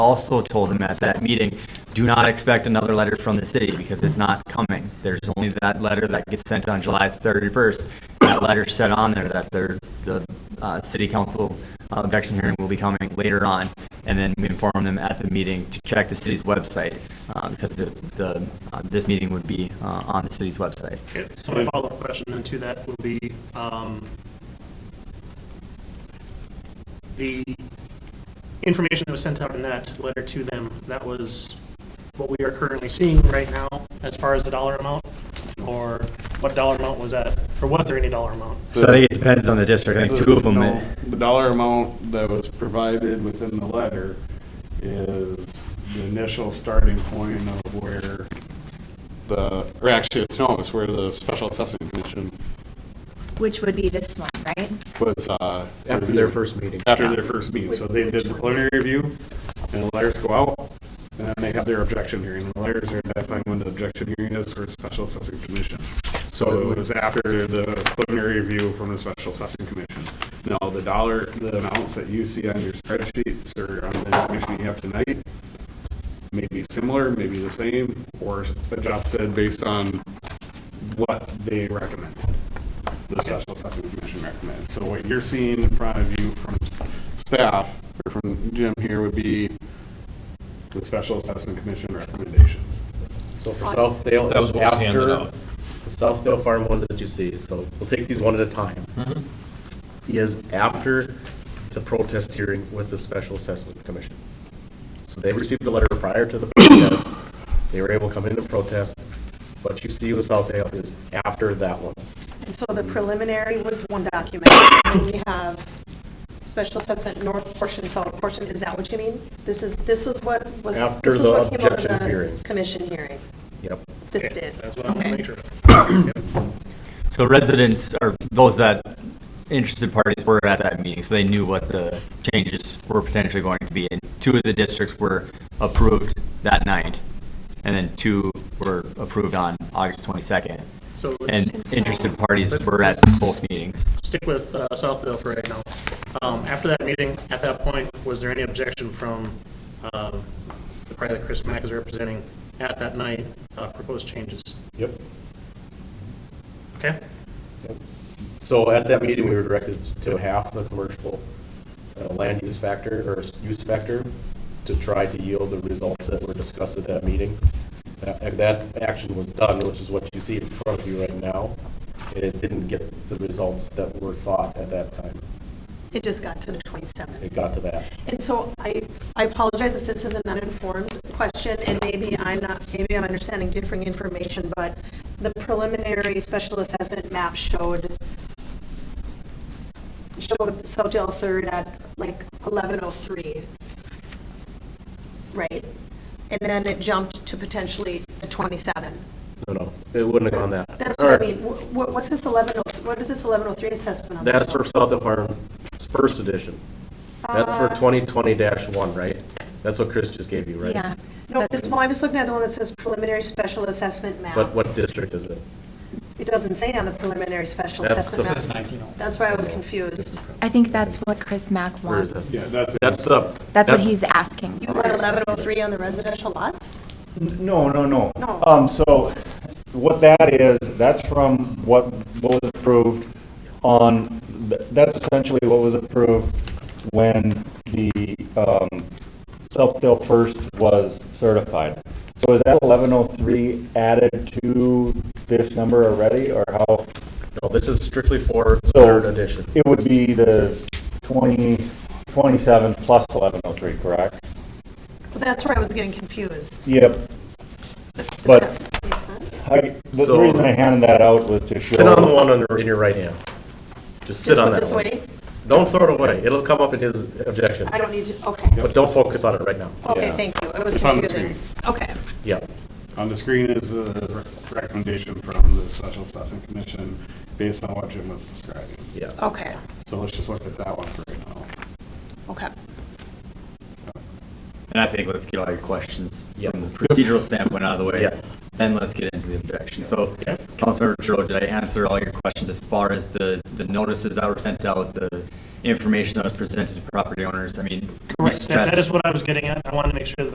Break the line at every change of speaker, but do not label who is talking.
also told him at that meeting, do not expect another letter from the city because it's not coming. There's only that letter that gets sent on July 31st. That letter said on there that there- the uh, city council uh, objection hearing will be coming later on. And then we inform them at the meeting to check the city's website uh, because the- the, uh, this meeting would be uh, on the city's website.
Okay, so my follow-up question then to that will be, um, the information that was sent out in that letter to them, that was what we are currently seeing right now as far as the dollar amount? Or what dollar amount was that, or was there any dollar amount?
So I think it depends on the district. I think two of them.
No, The dollar amount that was provided within the letter is the initial starting point of where the, or actually, it's, no, it's where the special assessment commission
Which would be this one, right?
was, uh.
After their first meeting.
After their first meeting, so they did the preliminary review, and the letters go out, and then they have their objection hearing, and the letters are identifying when the objection hearing is for the special assessing commission. So it was after the preliminary review from the special assessing commission. Now, the dollar, the amounts that you see on your spreadsheets or on the information you have tonight may be similar, maybe the same, or adjusted based on what they recommend the special assessment commission recommends. So what you're seeing in front of you from staff, or from Jim here, would be the special assessment commission recommendations.
So for Southdale, it
That was
was
what was handed
after
out.
the Southdale Farm ones that you see, so we'll take these one at a time.
Mm-hmm.
Is after the protest hearing with the Special Assessment Commission. So they received a letter prior to the protest, they were able to come in and protest. What you see with Southdale is after that one.
And so the preliminary was one document, and we have special assessment north portion, south portion, is that what you mean? This is, this was what was,
After
this was
the
what came out of
objection hearing.
the commission hearing?
Yep.
This did?
That's what I want to make sure. of.
So residents or those that interested parties were at that meeting, so they knew what the changes were potentially going to be. And two of the districts were approved that night, and then two were approved on August 22nd.
So let's
And interested parties were at both meetings.
stick with uh, Southdale for right now. Um, After that meeting, at that point, was there any objection from um, the party that Chris Mack is representing at that night, uh, proposed changes?
Yep.
Okay?
So at that meeting, we were directed to half the commercial uh, land use factor or use factor to try to yield the results that were discussed at that meeting. That, and that action was done, which is what you see in front of you right now. And it didn't get the results that were thought at that time.
It just got to the 27th.
It got to that.
And so I, I apologize if this is an uninformed question, and maybe I'm not, maybe I'm understanding differing information, but the preliminary special assessment map showed, showed Southdale Third at like 1103, right? And then it jumped to potentially the 27.
No, no, it wouldn't have gone that.
That's what I mean, Wh- wh- what's this 11, what is this 1103 assessment on?
That's for South of Farm, it's first edition. That's for
Uh,
twenty twenty one, right? That's what Chris just gave you, right?
Yeah.
No,
That's-
this, well, I was looking at the one that says preliminary special assessment map.
But what district is it?
It doesn't say on the preliminary special
That's
assessment
the- oh
map. That's why I was confused.
I think that's what Chris Mack
Where is
wants.
that?
Yeah, that's.
That's the.
That's what he's asking.
You want eleven oh three on the residential lots?
No, no, no.
No.
Um, so what that is, that's from what was approved on, that's essentially what was approved when the, um, Southdale First was certified. So is that eleven oh three added to this number already, or how?
No, this is strictly for
So
third edition.
It would be the twenty, twenty-seven plus eleven oh three, correct?
Well, That's where I was getting confused.
Yep.
Does
But-
that make sense?
I, the
So-
reason I handed that out was to show.
Sit on the one on, in your right hand. Just sit
Just
on
put
that
this
one.
way?
Don't throw it away. It'll come up in his objection.
I don't need to, okay.
But don't focus on it right now.
Okay,
Yeah.
thank you. It was
It's on the
confusing. Okay.
Yeah.
On the screen is the recommendation from the special assessment commission based on what Jim was describing.
Yes.
Okay,
So let's just look at that one for right now.
okay.
And I think let's get all your questions from
Yes.
the procedural standpoint out of the way.
Yes.
Then let's get into the objection. So,
Yes.
Councilmember Trudeau, did I answer all your questions as far as the, the notices that were sent out, the
information that was presented to property owners. I mean, we
Correct, that
stressed
that is what I was getting at, I wanted to make sure that